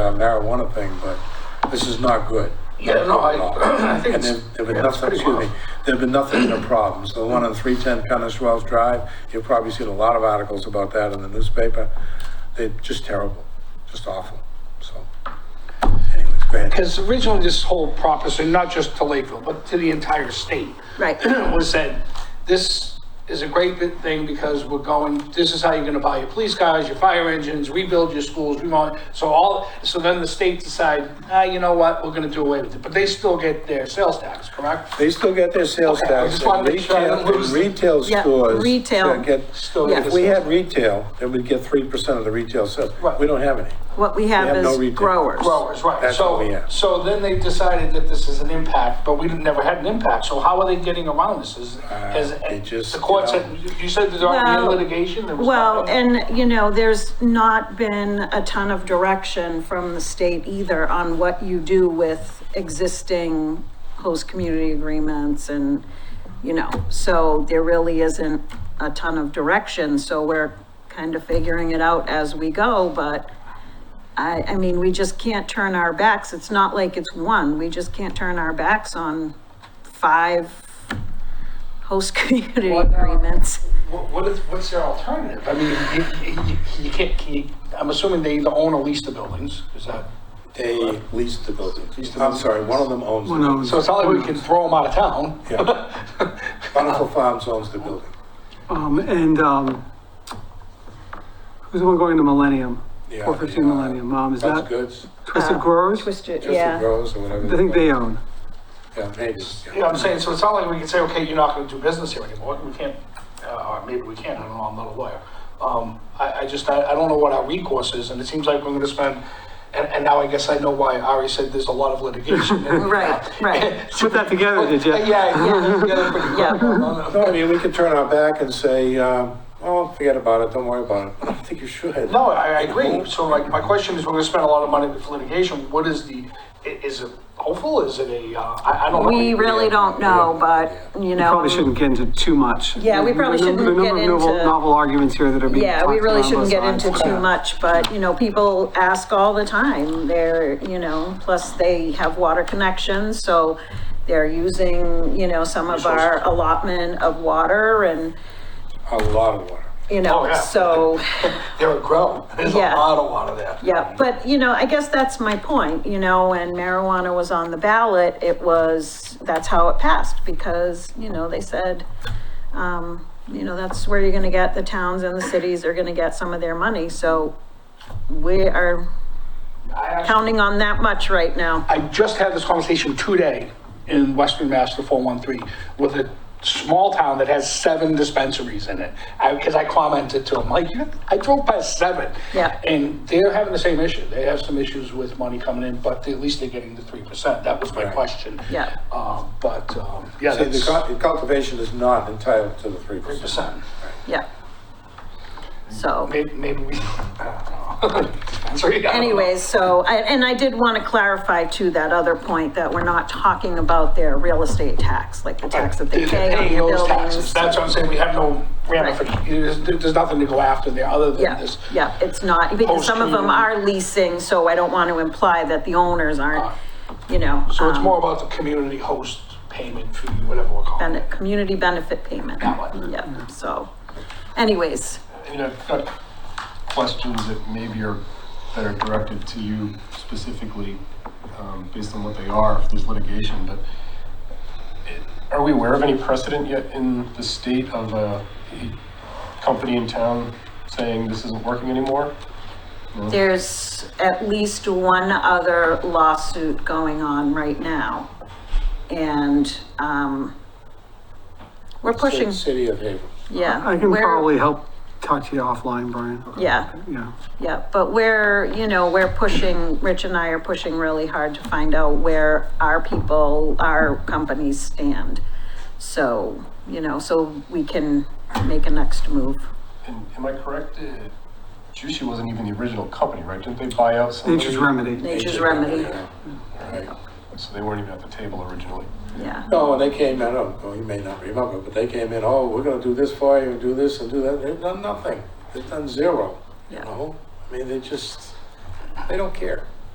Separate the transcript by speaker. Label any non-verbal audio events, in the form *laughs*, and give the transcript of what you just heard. Speaker 1: on marijuana thing, but this is not good.
Speaker 2: Yeah, no, I-
Speaker 1: Not at all.
Speaker 2: I *clears throat* think
Speaker 1: And
Speaker 2: it's-
Speaker 1: there- There've been
Speaker 2: yeah, it's
Speaker 1: nothing,
Speaker 2: pretty
Speaker 1: excuse me,
Speaker 2: mild.
Speaker 1: there've been nothing but problems. The one on 310 Connors Wells Drive, you've probably seen a lot of articles about that in the newspaper. They're just terrible, just awful, so. Anyways, go ahead.
Speaker 2: Because originally this whole proposition, not just to Lakeville, but to the entire state. *clears throat*
Speaker 3: Right.
Speaker 2: Was that this is a great big thing because we're going, this is how you're gonna buy your police cars, your fire engines, rebuild your schools, we want, so all, so then the state decide, ah, you know what, we're gonna do away with it, but they still get their sales tax, correct?
Speaker 1: They still get their sales
Speaker 2: Okay, I
Speaker 1: tax.
Speaker 2: just wanted to make sure I
Speaker 1: and
Speaker 2: don't lose-
Speaker 1: retail- Retail
Speaker 3: Yeah,
Speaker 1: stores.
Speaker 3: retail.
Speaker 1: that get-
Speaker 2: Still
Speaker 3: Yeah.
Speaker 1: If we had retail, then we'd get 3% of the retail sales.
Speaker 2: Right.
Speaker 1: We don't have any.
Speaker 3: What we
Speaker 1: We have
Speaker 3: have
Speaker 1: no
Speaker 3: is
Speaker 1: retail.
Speaker 3: growers.
Speaker 2: Growers, right,
Speaker 1: That's what we
Speaker 2: so,
Speaker 1: have.
Speaker 2: so then they decided that this is an impact, but we didn't- never had an impact, so how are they getting around this? Is, has,
Speaker 1: Uh, they just,
Speaker 2: the
Speaker 1: you know-
Speaker 2: court said, you- you said there's already
Speaker 3: Well-
Speaker 2: litigation, there was.
Speaker 3: Well,
Speaker 2: nothing?
Speaker 3: and, you know, there's not been a ton of direction from the state either on what you do with existing host community agreements and, you know, so there really isn't a ton of direction, so we're kind of figuring it out as we go, but I, I mean, we just can't turn our backs, it's not like it's one, we just can't turn our backs on five host *laughs* community
Speaker 2: What, um,
Speaker 3: agreements.
Speaker 2: What, what is, what's their alternative? I mean, you, you, you can't, can you, I'm assuming they either own or lease the buildings, is that?
Speaker 1: They lease the buildings.
Speaker 2: Lease the
Speaker 1: I'm sorry, one of them owns the building.
Speaker 2: So it's not like we can throw them out of town.
Speaker 1: *laughs* Yeah. Bountiful Farms owns the building.
Speaker 4: Um, and, um, who's the one going to Millennium?
Speaker 1: Yeah,
Speaker 4: Four fifteen
Speaker 1: the, uh,
Speaker 4: Millennium, um, is
Speaker 1: That's
Speaker 4: that
Speaker 1: goods,
Speaker 4: Twisted Growers?
Speaker 3: Uh, Twisted,
Speaker 1: just the
Speaker 3: yeah.
Speaker 1: grows or
Speaker 4: I
Speaker 1: whatever.
Speaker 4: think they own.
Speaker 1: Yeah, neighbors,
Speaker 2: You know what I'm saying? So it's not like we can say, okay, you're not gonna do business here anymore. We can't, uh, or maybe we can, I don't know, I'm not a lawyer. Um, I, I just, I, I don't know what our recourse is, and it seems like we're gonna spend, and, and now I guess I know why Ari said there's a lot of litigation.
Speaker 3: Right, right.
Speaker 4: Put that together, did
Speaker 3: Uh,
Speaker 4: you?
Speaker 2: Yeah, yeah, together pretty quick.
Speaker 1: No, I mean, we could turn our back and say, um, oh, forget about it, don't worry about it. I don't think you should.
Speaker 2: No, I, I agree. So like, my question is, we're gonna spend a lot of money with litigation. What is the, i- is it hopeful? Is it a, uh, I, I don't know.
Speaker 3: We really don't know, but, you know.
Speaker 4: Probably shouldn't get into too much.
Speaker 3: Yeah, we probably
Speaker 4: The number-
Speaker 3: shouldn't
Speaker 4: the number
Speaker 3: get
Speaker 4: of novel-
Speaker 3: into-
Speaker 4: Novel arguments here that are being
Speaker 3: Yeah, we
Speaker 4: talked
Speaker 3: really
Speaker 4: about on
Speaker 3: shouldn't get
Speaker 4: both sides.
Speaker 3: into too much, but, you know, people ask all the time. They're, you know, plus they have water connections, so they're using, you know, some of our allotment of water and,
Speaker 1: A lot of water.
Speaker 3: you
Speaker 2: Oh,
Speaker 3: know,
Speaker 2: yeah.
Speaker 3: so,
Speaker 2: They're a grow. There's a
Speaker 3: Yeah.
Speaker 2: lot of water there.
Speaker 3: yeah. But, you know, I guess that's my point, you know, when marijuana was on the ballot, it was, that's how it passed because, you know, they said, um, you know, that's where you're gonna get, the towns and the cities are gonna get some of their money, so we are
Speaker 2: I actually-
Speaker 3: counting on that much right now.
Speaker 2: I just had this conversation today in Western Mass, the 413, with a small town that has seven dispensaries in it. Because I commented to him, like, "You- I drove past seven.
Speaker 3: Yeah.
Speaker 2: And they're having the same issue. They have some issues with money coming in, but at least they're getting the 3%. That was my
Speaker 1: Right.
Speaker 2: question.
Speaker 3: Yeah.
Speaker 2: Uh, But, um, yeah,
Speaker 1: See, the
Speaker 2: that's
Speaker 1: cul- the cultivation is not entitled to the three percent.
Speaker 2: 3%.
Speaker 3: Yeah. So
Speaker 2: Maybe, maybe we, uh, I don't know. *laughs* Dispensary, I don't know.
Speaker 3: anyways, so, I- and I did want to clarify too, that other point that we're not talking about their real estate tax, like the tax that they
Speaker 2: They're
Speaker 3: pay on
Speaker 2: paying
Speaker 3: their
Speaker 2: those taxes.
Speaker 3: buildings.
Speaker 2: That's what I'm saying, we have no ramifications, there's there's nothing to go after there, other than
Speaker 3: Yeah,
Speaker 2: this.
Speaker 3: yeah, it's not, because some of them
Speaker 2: Post-community.
Speaker 3: are leasing, so I don't want to imply that the owners aren't, you know.
Speaker 2: So it's
Speaker 3: um,
Speaker 2: more about the community host payment fee, whatever we're calling it.
Speaker 3: bene- community benefit payment.
Speaker 2: That one.
Speaker 3: Yeah, so anyways,
Speaker 5: And I've got questions that maybe are, that are directed to you specifically, um, based on what they are, if there's litigation, but it- are we aware of any precedent yet in the state of a a company in town saying this isn't working anymore?
Speaker 3: there's at least one other lawsuit going on right now. And, um, we're pushing,
Speaker 1: City of Haverhill.
Speaker 3: yeah.
Speaker 4: I can
Speaker 3: we're-
Speaker 4: probably help talk to you offline, Brian.
Speaker 3: Yeah,
Speaker 4: Yeah.
Speaker 3: yeah, but we're, you know, we're pushing, Rich and I are pushing really hard to find out where our people, our companies stand. So, you know, so we can make a next move.
Speaker 5: And am I correct, uh, Jushi wasn't even the original company, right? Didn't they buy out somebody?
Speaker 4: Nature's Remedy.
Speaker 3: Nature's remedy,
Speaker 1: Right.
Speaker 5: So they weren't even at the table originally.
Speaker 3: yeah.
Speaker 1: No, and they came in, I don't know, you may not remember, but they came in, oh, we're gonna do this for you, and do this and do that. They've done nothing. They've done zero, you
Speaker 3: Yeah.
Speaker 1: know? I mean, they just, they don't care.